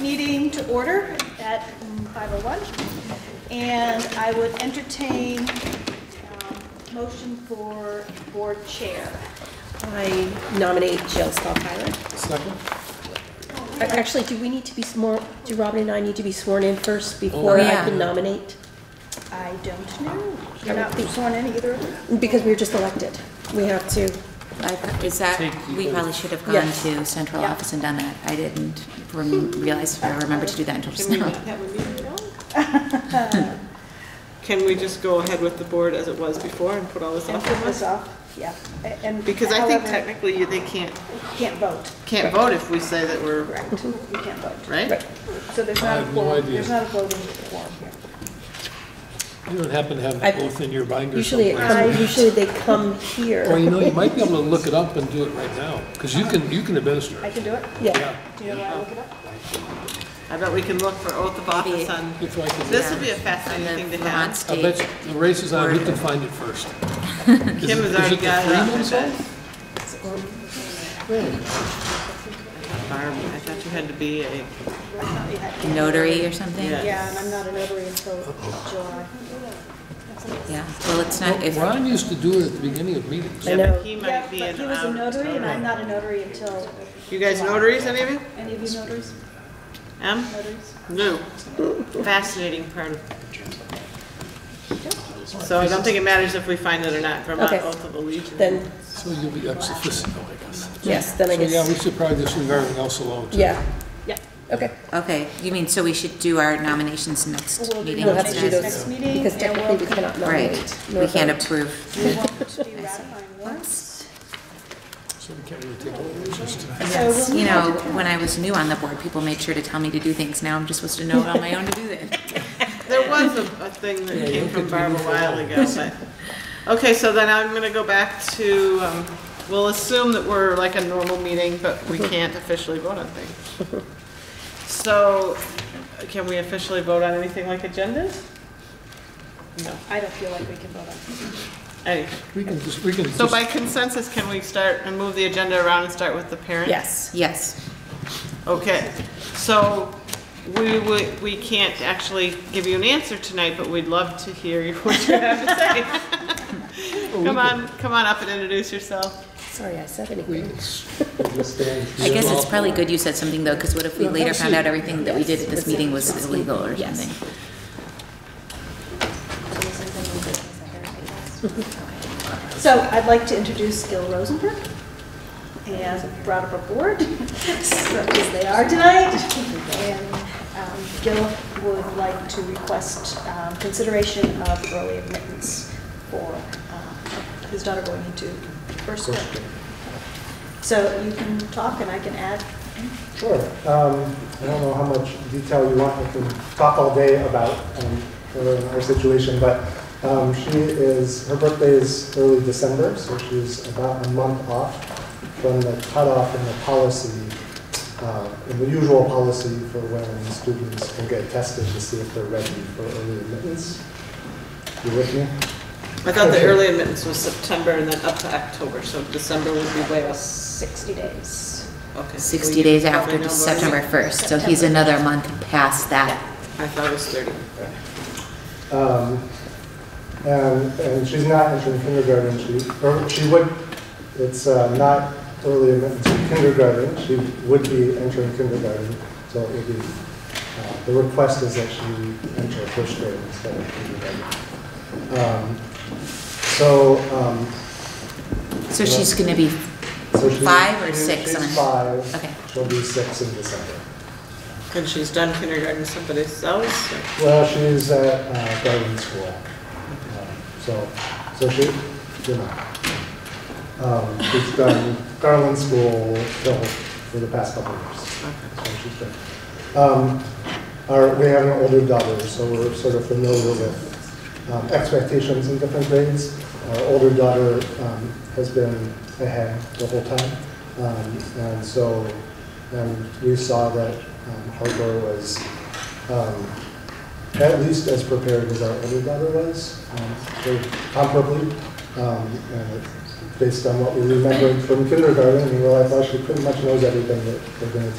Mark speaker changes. Speaker 1: meeting to order at 5:01. And I would entertain um, motion for board chair.
Speaker 2: I nominate Jill Stahlheiler.
Speaker 3: Second?
Speaker 2: Actually, do we need to be, s- more? do Robin and I need to be sworn in first before I
Speaker 4: Oh, yeah.
Speaker 2: can nominate?
Speaker 1: I don't know. You're not sworn in either of you?
Speaker 2: Because we were just elected. We have to,
Speaker 4: I- Is that, we probably should have gone
Speaker 2: Yes.
Speaker 4: to central
Speaker 1: Yeah.
Speaker 4: office and done that. I didn't rem- realize, or remember to do that until just
Speaker 5: Can we
Speaker 4: now.
Speaker 5: not have a meeting now? Can we just go ahead with the board as it was before and put all this
Speaker 1: And
Speaker 5: off
Speaker 1: put
Speaker 5: of
Speaker 1: this
Speaker 5: us?
Speaker 1: off, yeah. A- And
Speaker 5: Because I think
Speaker 1: however,
Speaker 5: technically you- they can't,
Speaker 1: you Can't vote,
Speaker 5: can't vote if we say that we're,
Speaker 1: correct? You can't vote.
Speaker 5: Mm-hmm. right?
Speaker 1: So there's
Speaker 3: I
Speaker 1: not a
Speaker 3: have no
Speaker 1: quorum,
Speaker 3: idea.
Speaker 1: there's not a voting quorum here.
Speaker 3: You don't happen to have
Speaker 2: I-
Speaker 3: both in your binder
Speaker 2: usually it
Speaker 3: somewhere?
Speaker 2: comes, usually they come
Speaker 3: Or
Speaker 2: here.
Speaker 3: you know, you might be able to look it up and do it right now, because you can, you can administer
Speaker 1: I
Speaker 3: it.
Speaker 1: can do it?
Speaker 2: Yeah,
Speaker 3: Yeah,
Speaker 1: Do you know why I look it up?
Speaker 5: I bet we can look for oath of office on,
Speaker 3: if I could,
Speaker 5: this will be a fascinating
Speaker 4: And the
Speaker 5: thing to
Speaker 4: Vermont
Speaker 5: have.
Speaker 3: I bet
Speaker 4: State,
Speaker 3: you- the race is on, who can find it first? Is
Speaker 5: Kim
Speaker 3: it-
Speaker 5: has already
Speaker 3: is it the
Speaker 5: got it
Speaker 3: Freeman
Speaker 5: up.
Speaker 3: song?
Speaker 5: Farm, I thought you had to be a,
Speaker 1: I thought you had to.
Speaker 4: notary or something?
Speaker 5: Yeah.
Speaker 1: Yeah, and I'm not a notary until July.
Speaker 4: Yeah. well, it's not, if,
Speaker 3: Ron used to do it at the beginning of meetings.
Speaker 2: I
Speaker 5: yeah,
Speaker 2: know.
Speaker 5: but he
Speaker 1: Yeah,
Speaker 5: might
Speaker 1: but
Speaker 5: be
Speaker 1: he
Speaker 5: an
Speaker 1: was a
Speaker 5: out.
Speaker 1: notary, and I'm not a notary until,
Speaker 5: You guys notaries, any of you?
Speaker 1: any of you notaries?
Speaker 5: Em?
Speaker 1: Notaries?
Speaker 5: No. Fascinating part of. So I don't think it matters if we find it or not, Vermont
Speaker 2: Okay.
Speaker 5: oath of allegiance.
Speaker 2: then,
Speaker 3: So you'll be ex officio, I guess.
Speaker 2: yes, then I
Speaker 3: So yeah, we
Speaker 2: guess,
Speaker 3: should probably just leave everything else alone, too.
Speaker 2: yeah,
Speaker 1: Yeah.
Speaker 2: okay.
Speaker 4: okay, you mean, so we should do our nominations next
Speaker 1: We'll do
Speaker 4: meeting?
Speaker 2: We'll have to do those
Speaker 4: instead?
Speaker 1: next meeting,
Speaker 2: Because
Speaker 1: and
Speaker 2: technically we
Speaker 1: we'll,
Speaker 2: cannot nominate.
Speaker 4: Right,
Speaker 2: nor
Speaker 4: we can't
Speaker 2: vote.
Speaker 4: approve.
Speaker 1: we want to be ratifying warrants.
Speaker 3: So we can't really take all the issues tonight.
Speaker 4: Yes, you know, when I was new on the board, people made sure to tell me to do things. Now I'm just supposed to know it on my own to do that.
Speaker 5: There was a, a thing that came from Barb a while ago, but, okay, so then I'm gonna go back to, um, we'll assume that we're like a normal meeting, but we can't officially vote on things. So, can we officially vote on anything like agendas? No,
Speaker 1: I don't feel like we can vote on.
Speaker 5: any,
Speaker 3: We can just, we can just.
Speaker 5: so by consensus, can we start and move the agenda around and start with the parent?
Speaker 2: Yes,
Speaker 4: Yes,
Speaker 5: Okay, so we, we, we can't actually give you an answer tonight, but we'd love to hear what you have to say. Come on, come on up and introduce yourself.
Speaker 2: sorry, I said
Speaker 3: We
Speaker 2: anything.
Speaker 3: can s- we'll just stand
Speaker 4: I guess it's
Speaker 3: here.
Speaker 4: probably good you said something though, because what if we
Speaker 3: Yeah,
Speaker 4: later found out
Speaker 3: absolutely.
Speaker 4: everything that we did at this meeting was illegal or
Speaker 2: Yes.
Speaker 4: something?
Speaker 1: it. So I'd like to introduce Gil Rosenberg, and brought up a board, as they are tonight. And um, Gil would like to request um, consideration of early admittance for um, his daughter going into first grade. So you can talk and I can add.
Speaker 6: Sure. Um, I don't know how much detail you want. I can talk all day about um, her her situation, but um, she is, her birthday is early December, so she's about a month off from the cutoff in the policy, uh, in the usual policy for when students can get tested to see if they're ready for early admittance. You with me?
Speaker 5: I thought the early admittance was September and then up to October, so December would be way off.
Speaker 1: 60 days.
Speaker 5: Okay, so
Speaker 4: 60
Speaker 5: you
Speaker 4: days
Speaker 5: probably
Speaker 4: after
Speaker 5: know those.
Speaker 4: September 1st, so he's another month past that.
Speaker 5: I thought it was 30.
Speaker 6: Um, And, and she's not entering kindergarten, she, or she would, it's uh, not early admittance to kindergarten, she would be entering kindergarten, so it would be, uh, the request is that she enter first grade instead of kindergarten. Um, So, um,
Speaker 4: So she's going to be,
Speaker 6: so she.
Speaker 4: Five or six
Speaker 6: She's
Speaker 4: on-
Speaker 6: five.
Speaker 4: okay.
Speaker 6: She'll be six in December.
Speaker 5: And she's done kindergarten somebody else? or-
Speaker 6: Well, she's at uh, garden school, Um, so, so she, you know, um, she's done Garland School till- for the past couple of years. So she's done. Um, Our, we have an older daughter, so we're sort of familiar with um, expectations in different grades. Our older daughter um, has been ahead the whole time, Um, and so, and we saw that um, Harper was um, at least as prepared as our older daughter was, um, or comparably. Um, uh, and Based on what we remembered from kindergarten, we realized, well, she pretty much knows everything that we're going to